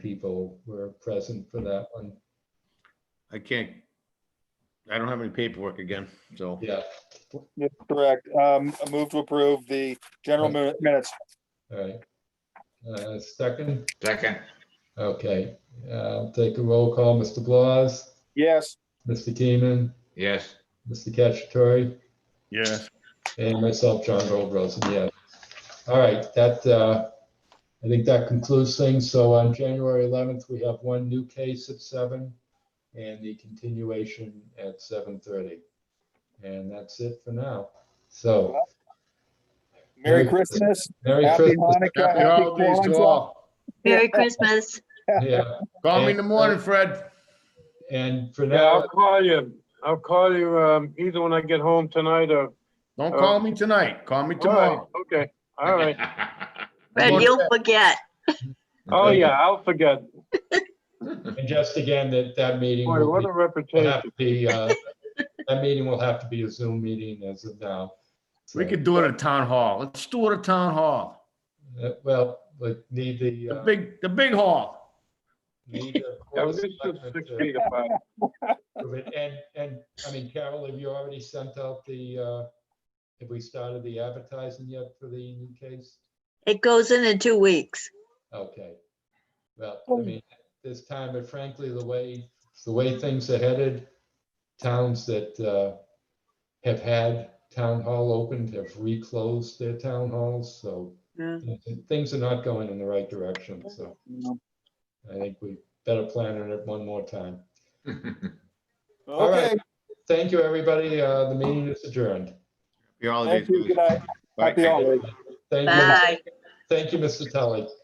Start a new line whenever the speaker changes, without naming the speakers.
people were present for that one.
I can't, I don't have any paperwork again, so.
Yeah,
Yes, correct. Um, I move to approve the general mi- minutes.
all right. Uh, Second,
Second,
okay, uh, I'll take a roll call. Mr. Blas,
Yes,
Mr. Keenan,
yes,
Mr. Cacciatore,
Yes.
and myself, John Goldrosen, yeah. All right, that, uh, I think that concludes things. So on January 11th, we have one new case at seven and the continuation at 7:30. And that's it for now. So
Merry
Merry
Christmas,
Merry
happy
Christmas.
Hanukkah,
Happy
happy
holidays to
Kwanzaa.
all.
Merry Christmas.
Yeah,
Call me in the morning, Fred.
and for
Yeah,
now,
I'll call you. I'll call you, um, either when I get home tonight or.
Don't call me tonight. Call me tomorrow.
All right, Okay, all right.
Fred,
Well,
you'll forget.
Oh, yeah, I'll forget.
and just again, that, that meeting
Boy,
will
what
be-
a
will have
reputation.
to be, uh, that meeting will have to be a Zoom meeting as of now.
We
So,
could do it at town hall. Let's do it at town hall.
uh, Well, but need the,
The
uh,
big, the big hall.
need the
Yeah,
board
this is
selectmen
six
to
feet apart.
approve it. And, and, I mean, Carol, have you already sent out the, uh, have we started the advertising yet for the new case?
It goes in in two weeks.
Okay. Well,
Oh.
I mean, this time, but frankly, the way, the way things are headed, towns that uh, have had town hall opened have reclosed their town halls, so
Yeah.
things are not going in the right direction, so I think we better plan on it one more time. All right.
Okay,
Thank you, everybody. Uh, The meeting is adjourned.
Happy holidays.
thank you, good
guys.
night, happy
Bye.
holidays.
Thank you,
Bye.
thank you, Mr. Tully.